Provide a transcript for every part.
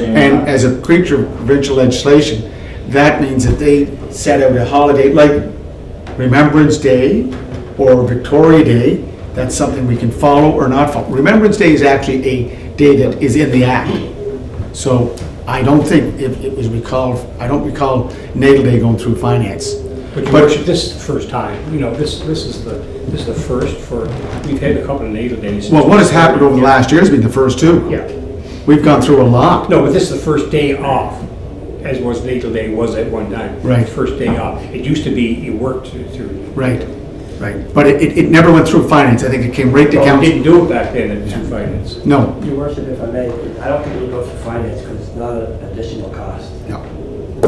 understand. And as a creature of provincial legislation, that means that they set out a holiday, like Remembrance Day or Victoria Day, that's something we can follow or not follow. Remembrance Day is actually a day that is in the act. So I don't think if it was recalled, I don't recall Natal Day going through finance. But your worship, this is the first time, you know, this, this is the, this is the first for, we've had a couple of natal days. Well, what has happened over the Yeah. last year has been the first two. Yeah, We've gone through a lot. no, but this is the first day off, as was natal day was at one time. Right. First day off. It used to be you worked through. Right, right. But it, it- it never went through finance. I think it came right to Well, we council. didn't do Oh, it back then at two finance. No, Your worship, if I may, I don't think we go through finance because it's not an additional cost. no.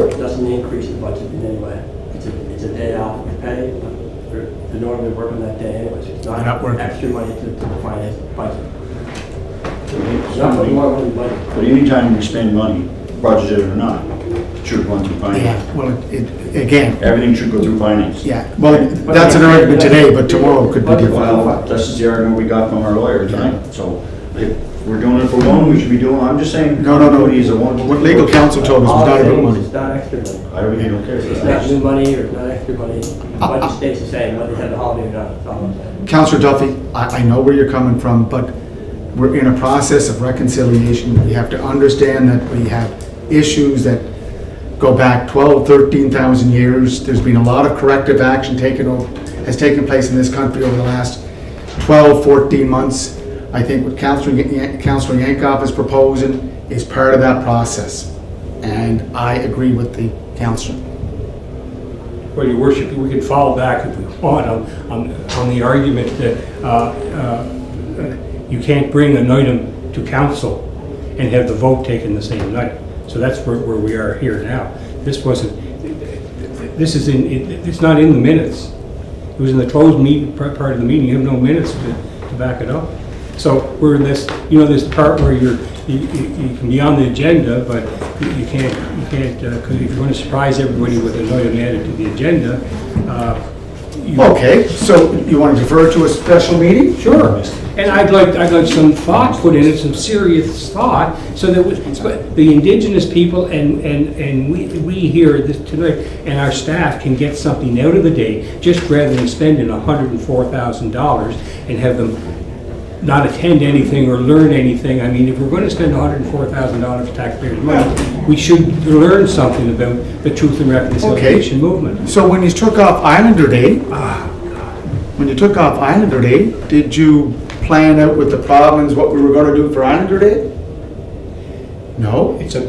It doesn't increase the budget in any way. It's a, it's a day off we pay, but we're- they're normally working that day anyways. It's They're not working. Extra money to, to the finance budget. Not putting more money in the budget. But anytime we spend money, budgeted or not, should run through finance. Yeah, well, it, again, Everything should go through finance. yeah, well, that's an argument today, but tomorrow could be different. Well, this is uh, the argument we got from our lawyer tonight, so if we're doing it for one, we should be doing, I'm just saying. No, no, no, He's a one. what legal counsel told us was All not I'm about saying is money. It's not extra money. I really don't care. It's not new money or not extra money. The budget stays the same, whether you have a holiday or not, that's all I'm saying. Counselor Duffy, I, I know where you're coming from, but we're in a process of reconciliation. We have to understand that we have issues that go back 12, 13,000 years. There's been a lot of corrective action taken over, has taken place in this country over the last 12, 14 months. I think what Counselor, Yan- Counselor Yankoff is proposing is part of that process. And I agree with the counselor. Well, your worship, we can fall back if we want on, on, on the argument that, uh, uh, you can't bring an item to council and have the vote taken the same night. So that's where, where we are here now. This wasn't, this is in, it- it's not in the minutes. It was in the closed meeting, part part of the meeting, you have no minutes to, to back it up. So we're in this, you know, this part where you're, you, you you can be on the agenda, but you you can't, you can't, because if you're going to surprise everybody with an item added to the agenda, uh, you... Okay, so you want to defer to a special meeting? Sure, and I'd like, I'd like some thought put in it, some serious thought, so that we- so the indigenous people and, and, and we, we here this tonight, and our staff can get something out of the day, just rather than spending hundred and four thousand dollars and have them not attend anything or learn anything. I mean, if we're gonna spend hundred and four thousand dollars of taxpayers' money, we should learn something about the truth and reconciliation movement. So when you took off Islander Day, ah, when you took off Islander Day, did you plan out with the province what we were gonna do for Islander Day? No? It's a,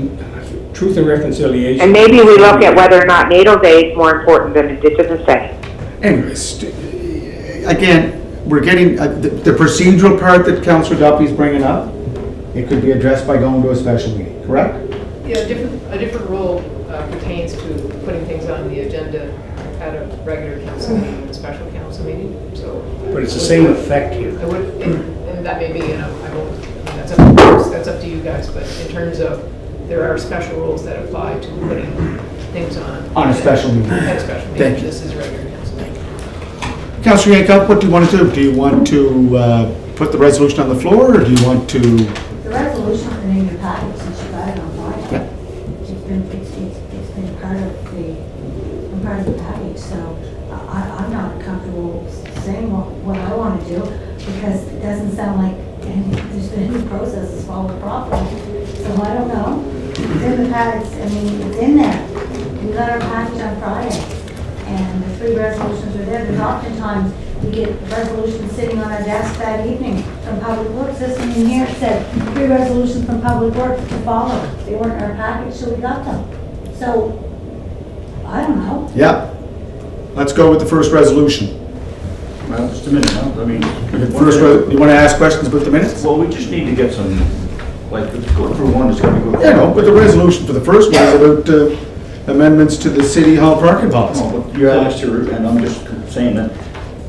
truth and reconciliation. And maybe we look at whether or not NATO Day is more important than Indigenous Day. Anyways, eh, again, we're getting, uh, the the procedural part that Councillor Duffy's bringing up, it could be addressed by going to a special meeting, correct? Yeah, a different, a different rule uh, pertains to putting things on the agenda at a regular council meeting and special council meeting, so. But it's the same effect here. I would, and that may be, you know, I won't, that's up, that's up to you guys, but in terms of, there are special rules that apply to putting things on. On a special meeting. At a special Thank meeting, you. this is regular council meeting. Councillor Yankoff, what do you want to do? Do you want to uh, put the resolution on the floor, or do you want to? The resolution has been in your packet since you got it on Friday. It's been, it's, it's it's been part of the, been part of the package, so I, I'm not comfortable saying what, what I want to do because it doesn't sound like any- there's been any process that's followed properly. So I don't know. It's in the packets, I mean, it's in there. We got our package on Friday and the three resolutions are there, because oftentimes we get resolutions sitting on our desk that evening from Public Works, this one in here said, three resolutions from Public Works to follow, they weren't in our package, so we got them. So, I don't know, Yeah. Let's go with the first resolution. Well, just a minute, huh? I mean. First, re- you want to ask questions about the minutes? Well, we just need to get some, like, let's go through one, it's gonna go. Yeah, no, but the resolution for the first one is about uh, amendments to the city hall parking policy. No, but You asked her, and I'm just saying that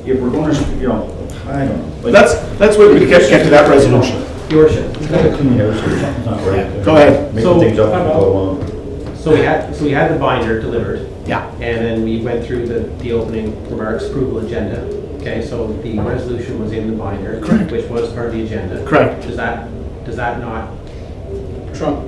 if we're gonna, you know, I don't know. but- Let's, let's wait, we get, get to that resolution. Your worship, You gotta clean yours, or something's not right. Go ahead. So- Making things up and go along. so we had, so we had the binder delivered, Yeah. and then we went through the, the opening remarks approval agenda. Okay, so the resolution was in the binder, Correct. which was part of the agenda. Correct. Does that, does that not Trump.